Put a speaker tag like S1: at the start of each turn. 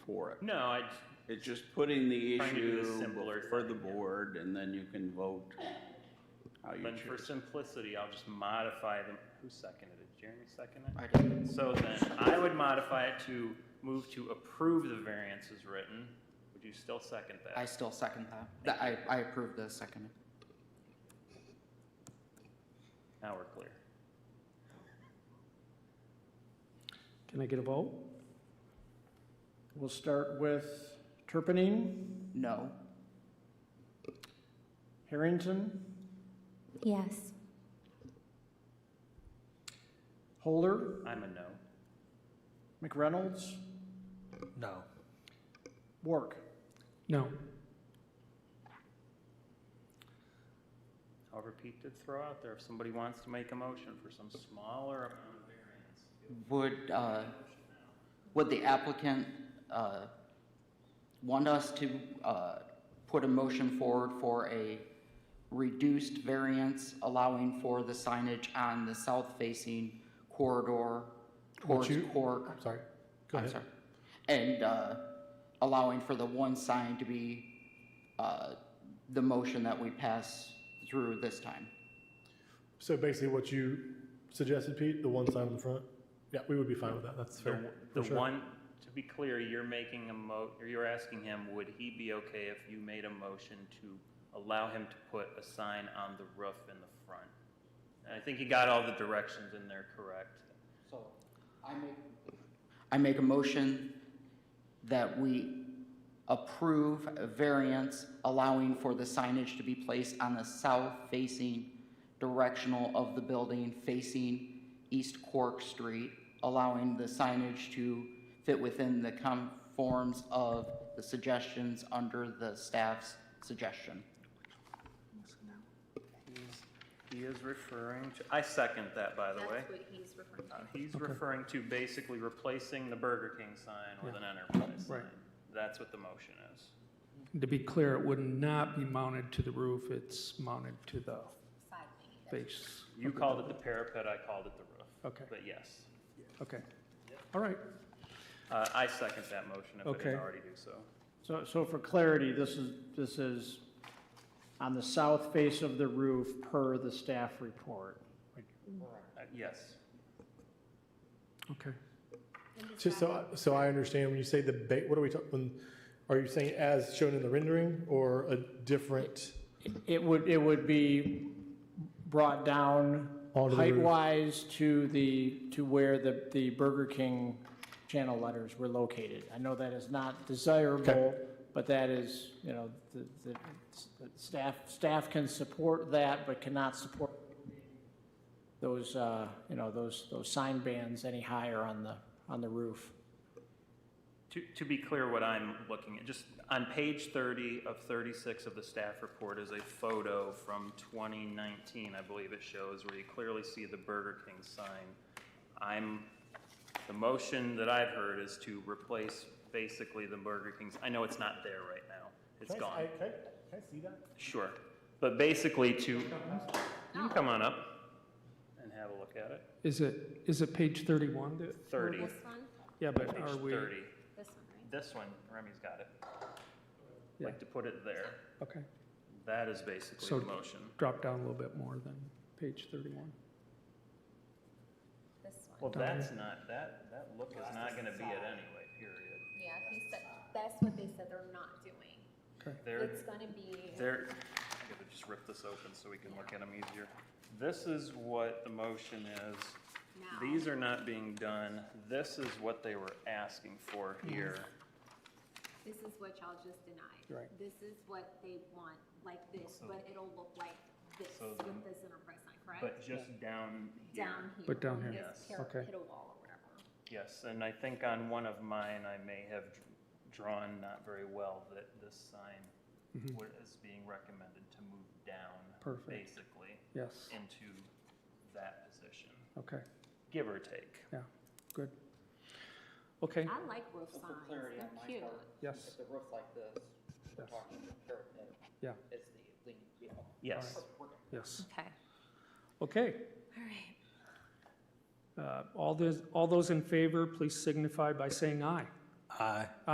S1: for it.
S2: No, I,
S1: It's just putting the
S2: Trying to do
S1: issue
S2: the simpler
S1: for the
S2: thing, yeah.
S1: board, and then you can vote how you
S2: but for
S1: choose.
S2: simplicity, I'll just modify them. Who seconded it? Jeremy seconded it?
S3: I did.
S2: So then I would modify it to move to approve the variance as written. Would you still second
S3: I
S2: that?
S3: still second that. That I, I approve the second.
S2: Now we're clear.
S4: Can I get a vote? We'll start with Turpinning,
S3: No.
S4: Harrington,
S5: Yes.
S4: Holder,
S2: I'm a no.
S4: McReynolds,
S6: No.
S4: Wark.
S6: No.
S2: However, Pete did throw out there, if somebody wants to make a motion for some smaller amount of variance.
S3: Would, uh, would the applicant, uh, want us to, uh, put a motion forward for a reduced variance allowing for the signage on the south-facing corridor towards
S6: you-
S3: Cork?
S6: Sorry. Go
S3: I'm
S6: ahead.
S3: sorry. And uh, allowing for the one sign to be uh, the motion that we pass through this time.
S7: So basically what you suggested, Pete, the one sign in the front? Yeah, we would be fine with that, that's
S2: The,
S7: fair. for
S2: the
S7: sure.
S2: one, to be clear, you're making a mo, or you're asking him, would he be okay if you made a motion to allow him to put a sign on the roof in the front? And I think he got all the directions in there correct.
S3: So I make. I make a motion that we approve a variance allowing for the signage to be placed on the south-facing directional of the building facing East Cork Street, allowing the signage to fit within the conforms of the suggestions under the staff's suggestion.
S2: He's- He is referring to, I second that, by the way.
S5: That's what he's referring to.
S2: Uh, He's referring to basically replacing the Burger King sign with an enterprise sign.
S6: Right.
S2: That's what the motion is.
S6: To be clear, it would not be mounted to the roof, it's mounted to the base.
S2: You called it the parapet, I called it the roof.
S6: Okay,
S2: But yes,
S6: okay. All right,
S2: Uh, I second that motion if I
S6: Okay.
S2: didn't already do so.
S4: So, so for clarity, this is, this is on the south face of the roof per the staff report.
S2: Uh, Yes.
S6: okay.
S7: Just so, I- so I understand, when you say the ba, what are we talking, are you saying as shown in the rendering or a different?
S4: It would, it would be brought down
S7: Onto the roof.
S4: height-wise to the, to where the, the Burger King channel letters were located. I know that is not desirable, but that is, you know, the, the the staff, staff can support that, but cannot support those, uh, you know, those, those sign bands any higher on the, on the roof.
S2: To, to be clear, what I'm looking at, just on page 30 of 36 of the staff report is a photo from 2019, I believe it shows, where you clearly see the Burger King sign. I'm, the motion that I've heard is to replace basically the Burger King's, I know it's not there right now, it's gone.
S7: Can I see that?
S2: Sure. But basically to, you can come on up and have a look at it.
S6: Is it, is it page 31? that-
S2: 30,
S5: This one,
S6: Yeah, but
S2: page
S6: are we?
S2: 30.
S5: this one, right?
S2: This one, Remy's got it.
S6: Yeah.
S2: Like to put it there.
S6: Okay,
S2: That is basically
S6: So-
S2: the motion.
S6: drop down a little bit more than page 31.
S5: This
S2: Well,
S5: one.
S2: that's not, that, that look is not gonna be it anyway, period.
S5: Yeah, he said, that's what they said they're not doing.
S2: There,
S5: It's gonna be,
S2: there, I gotta just rip this open so we can look at them easier. This is what the motion is.
S5: Now.
S2: These are not being done. This is what they were asking for here.
S5: this is what y'all just denied.
S6: Right.
S5: This is what they want, like this, but it'll look like this
S2: so
S5: with
S2: the-
S5: this enterprise sign,
S2: But
S5: correct?
S2: just down here.
S5: Down here.
S6: But down
S5: on
S6: here.
S5: this
S2: Yes.
S5: par-
S6: Okay.
S5: Piddle wall or whatever.
S2: Yes, and I think on one of mine, I may have dr- drawn not very well that this sign wa- is being recommended to move down,
S6: Perfect.
S2: basically,
S6: Yes,
S2: into that position,
S6: okay,
S2: give or take.
S6: yeah, good. Okay,
S5: I like roof signs, they're cute.
S6: yes,
S3: the roof like this,
S6: we're Yes. talking
S3: parapet,
S6: yeah,
S3: it's the lean, you know.
S2: Yes.
S6: yes.
S5: Okay,
S6: Okay,
S5: all right.
S6: uh, all those, all those in favor, please signify by saying aye.
S8: Aye.